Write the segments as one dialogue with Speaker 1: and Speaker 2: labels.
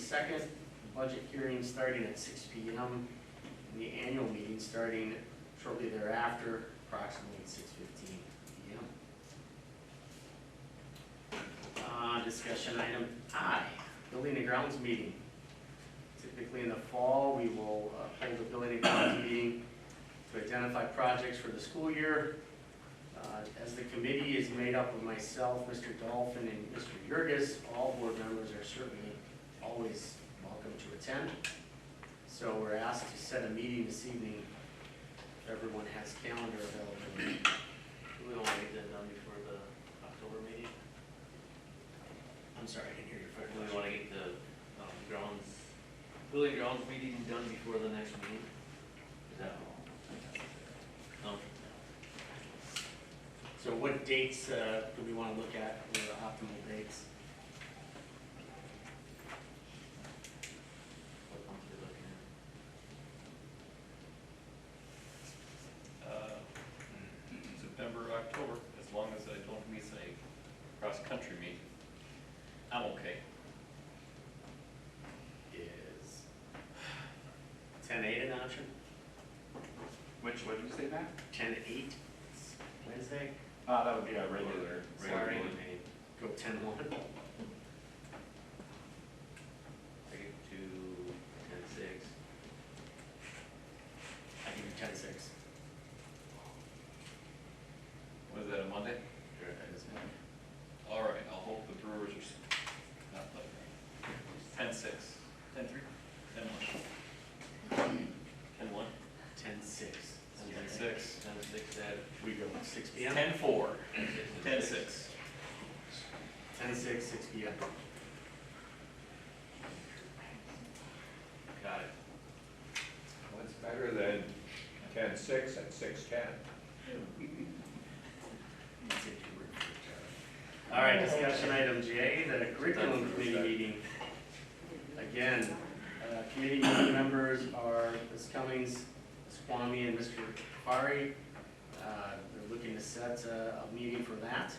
Speaker 1: second, budget hearing starting at six P M, and the annual meeting starting shortly thereafter, approximately six fifteen P M. Uh, discussion item I, building and grounds meeting. Typically in the fall, we will uh, hold a building and grounds meeting to identify projects for the school year. Uh, As the committee is made up of myself, Mr. Dolphin, and Mr. Yurgis, all board members are certainly always welcome to attend. So we're asked to set a meeting this evening. If Everyone has calendar available.
Speaker 2: We don't want to get that done before the October meeting.
Speaker 1: I'm sorry, I didn't hear your
Speaker 2: Or
Speaker 1: first
Speaker 2: do we
Speaker 1: question.
Speaker 2: want to get the um, grounds, building grounds meeting done before the next meeting? Is that? No?
Speaker 1: So what dates uh, do we want to look at, what are the optimal dates?
Speaker 2: What month are we looking at?
Speaker 3: uh, September, October, as long as I don't miss a cross-country meet, I'm okay.
Speaker 1: Is ten eight an option?
Speaker 4: Which, what did you say, Matt?
Speaker 1: Ten eight, Wednesday?
Speaker 4: Uh, that would be our regular, regular
Speaker 1: Sorry.
Speaker 4: meeting.
Speaker 1: Go ten one?
Speaker 2: I get to ten six.
Speaker 1: I can do ten six.
Speaker 3: Was that a Monday? All right, I'll hope the Brewers are s- not playing. Ten-six. Ten-three? Ten-one.
Speaker 2: Ten one?
Speaker 1: Ten six.
Speaker 3: Ten-six.
Speaker 2: Ten six at.
Speaker 1: We go six P M?
Speaker 3: Ten-four.
Speaker 2: at
Speaker 3: Ten-six.
Speaker 1: Ten six, six P M.
Speaker 2: Got it.
Speaker 5: What's better than ten-six and six-ten?
Speaker 1: All right, discussion item J, the curriculum committee meeting. Again, uh, committee meeting members are Ms. Cummings, Ms. Kwame, and Mr. Kapari. Uh, They're looking to set uh, a meeting for that.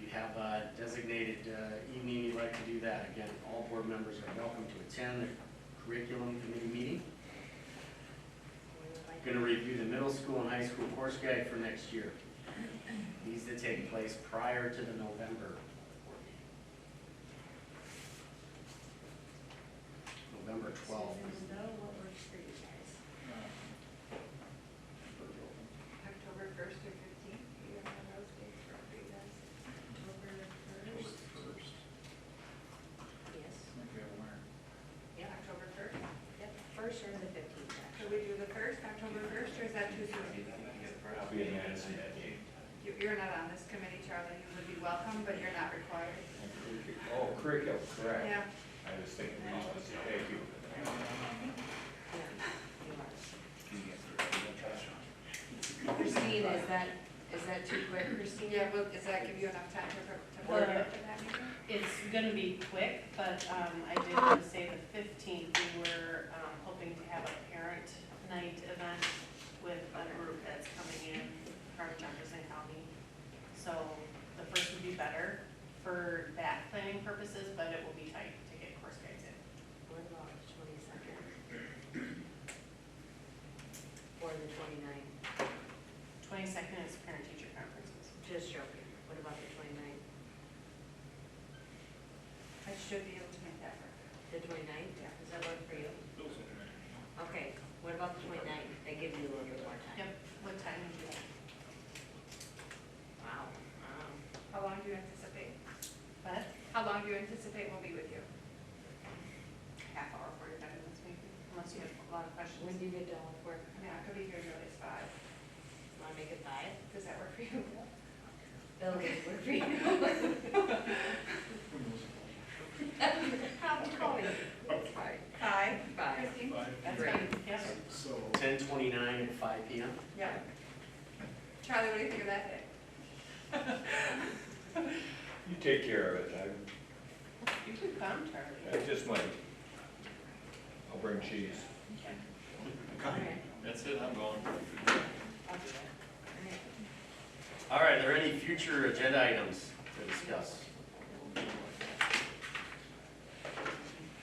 Speaker 1: You have a designated uh, evening you'd like to do that. Again, all board members are welcome to attend the curriculum committee meeting. Going to review the middle school and high school course guide for next year needs to take place prior to the November board meeting. November twelfth.
Speaker 6: Susan, though, what works for you guys?
Speaker 2: Uh,
Speaker 6: October first or fifteenth, do you have one of those dates for you guys? October first? Yes. Yeah, October first. Yep, first or the fifteenth. Could we do the first, October first, or is that too soon?
Speaker 4: I'll be in Madison that day.
Speaker 6: You- You're not on this committee, Charlie, you would be welcome, but you're not required.
Speaker 5: Oh, curriculum, correct.
Speaker 6: Yeah.
Speaker 5: I was thinking, thank you.
Speaker 7: Christine, is that, is that too quick, Christine?
Speaker 6: Yeah, well, does that give you enough time to, to
Speaker 8: Well-
Speaker 6: prepare for that meeting?
Speaker 8: It's gonna be quick, but um, I did want to say the fifteenth, we were um, hoping to have a parent night event with a group that's coming in from Jefferson County. So the first would be better for that planning purposes, but it will be tight to get course guides in.
Speaker 7: What about the twenty-second? Or the twenty-ninth?
Speaker 8: Twenty-second is parent-teacher conferences.
Speaker 7: Just joking. What about the twenty-ninth?
Speaker 6: I should be able to make that work.
Speaker 7: The twenty-ninth? Yeah. Does that work for you? Okay, what about the twenty-ninth? That gives you a little bit more time.
Speaker 8: Yep, what time would you like?
Speaker 7: Wow. Um,
Speaker 6: How long do you anticipate?
Speaker 8: But
Speaker 6: How long do you anticipate we'll be with you?
Speaker 8: half hour, forty-five minutes maybe, unless you have a lot of
Speaker 7: When
Speaker 8: questions.
Speaker 7: do you get done with work?
Speaker 6: I mean, I could be here as early as five.
Speaker 7: Wanna make it five?
Speaker 6: Does that work for you?
Speaker 7: Bill, would it work for you? How, call me. It's fine.
Speaker 6: Five?
Speaker 7: Five.
Speaker 6: Um, Christine?
Speaker 8: That's
Speaker 7: Great.
Speaker 8: fine, yes.
Speaker 1: Ten twenty-nine at five P M.
Speaker 6: Yeah. Charlie, what do you think of that day?
Speaker 5: You take care of it,
Speaker 8: You can come, Charlie.
Speaker 5: I, I just might. I'll bring cheese.
Speaker 7: All right.
Speaker 3: That's it, I'm going.
Speaker 8: I'll do that.
Speaker 1: All
Speaker 7: All right.
Speaker 1: right, are there any future agenda items to discuss?